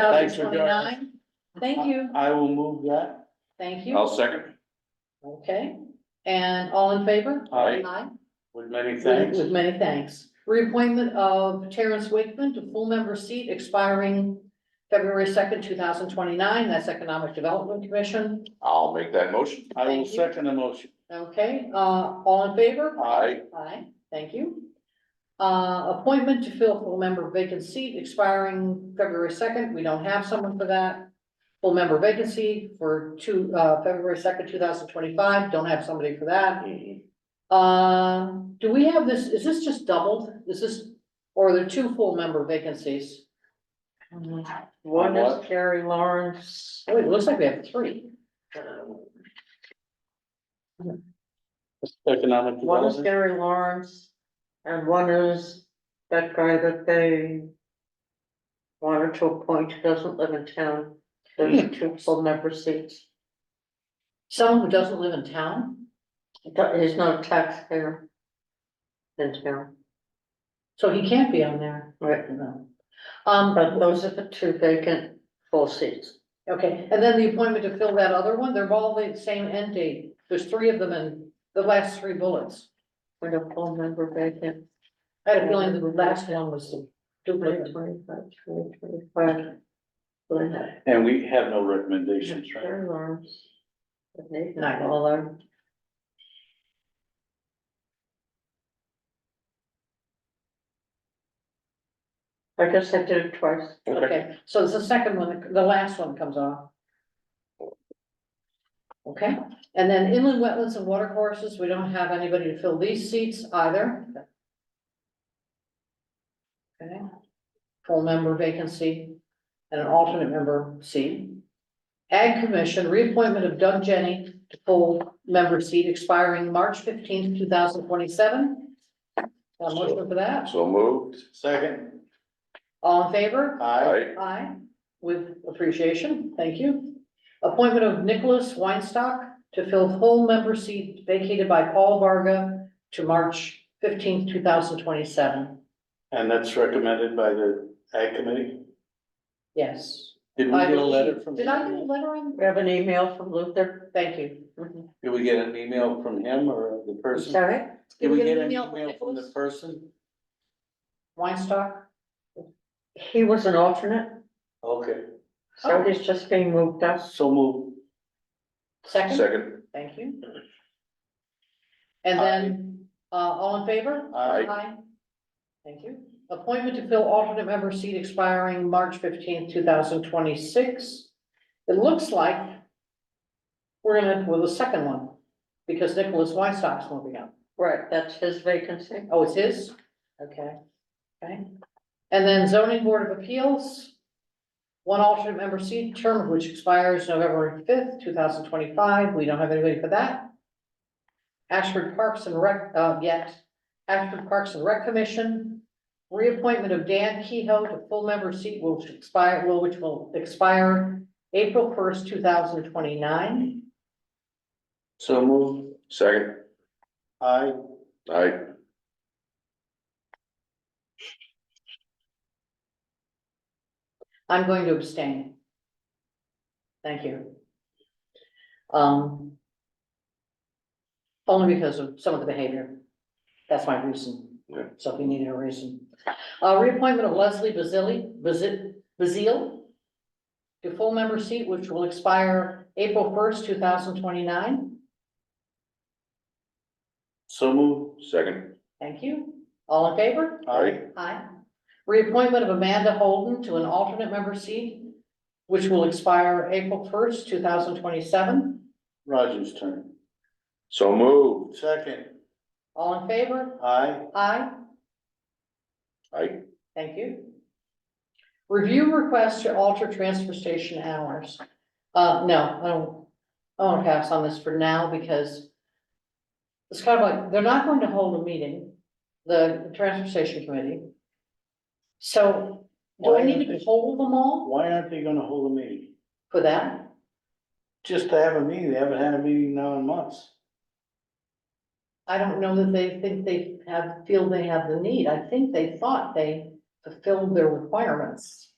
Thanks for going. 29. Thank you, I will move that. thank you. I'll second. Okay, and all in favor? Aye. With many thanks. With many thanks. Reappointment of Terrence Wakeman to full member seat expiring February second, two thousand twenty-nine. That's Economic Development Commission. I'll make that motion. I will Thank you. second the motion. Okay, uh, all in favor? Aye. Aye, thank you. Uh, appointment to fill full member vacant seat expiring February second, we don't have someone for that. Full member vacancy for two, uh, February second, two thousand twenty-five, don't have somebody for that. Uh, do we have this, is this just doubled, is this, or are there two full member vacancies? One What? is Carrie Lawrence. uh, Oh, it looks like we have three. Economic One is development. Gary Lawrence, and one is that guy that they wanted to appoint, who doesn't live in town. There's two full member seats. Someone who doesn't live in town, He do- He's not a taxpayer in town, so he can't be on there. right? No. Um, But those are the two vacant full seats. Okay, and then the appointment to fill that other one, they're all the same end date. There's three of them in the last three bullets. With a full member vacant. I had a feeling the last one was the duplicate. 2025, 2025. Linda, And we have no recommendations, right? Gary Lawrence. Nathan Not all Lawrence. of I guess I did it twice. them. Okay, so it's the second one, the last one comes off. Okay, and then inland wetlands and water courses, we don't have anybody to fill these seats either. Okay, full member vacancy and an alternate member seat. Ag Commission, reappointment of Doug Jenny to full member seat expiring March fifteenth, two thousand twenty-seven. Got a motion for that? So moved. Second. All in favor? Aye. Aye. Aye, with appreciation, thank you. Appointment of Nicholas Weinstock to fill full member seat vacated by Paul Varga to March fifteenth, two thousand twenty-seven. And that's recommended by the ag committee. Yes. Did we I get a believe- letter from? Did I get a letter on? We have an email from Luther. Thank you. Did we get an email from him or the person? Sorry? Did we get an an email from email from the Nicholas? person? Weinstock? He was an alternate, Okay, so he's just being moved up. so move. Second, Second. thank you. And then, uh, all in favor? Aye. Aye. Thank you. Appointment to fill alternate member seat expiring March fifteenth, two thousand twenty-six. It looks like we're gonna, well, the second one, because Nicholas Weinstock's moving up. Right, that's his vacancy. Oh, it's his? Okay, okay. And then zoning board of appeals. One alternate member seat, term of which expires November fifth, two thousand twenty-five. We don't have anybody for that. Ashford Parks and Rec, uh, yet, Ashford Parks and Rec Commission. Reappointment of Dan Kehoe to full member seat will expire, will, which will expire April first, two thousand twenty-nine. So move. Second. Aye. Aye. I'm going to abstain. Thank you. Um. Only because of some of the behavior. That's my reason. Yeah. So if you needed a reason. Uh, reappointment of Leslie Bazili, Bazil, Bazil. To full member seat, which will expire April first, two thousand twenty-nine. So move. Second. Thank you. All in favor? Aye. Aye. Reappointment of Amanda Holden to an alternate member seat, which will expire April first, two thousand twenty-seven. Roger's turn. So moved. Second. All in favor? Aye. Aye. Aye. Thank you. Review request to alter transfer station hours. Uh, no, I don't, I want to pass on this for now because it's kind of like, they're not going to hold a meeting, the transfer station committee. So do I need to hold them all Why aren't they gonna hold a meeting? for that? Just to have a meeting, they haven't had a meeting now in months. I don't know that they think they have, feel they have the need. I think they thought they fulfilled their requirements.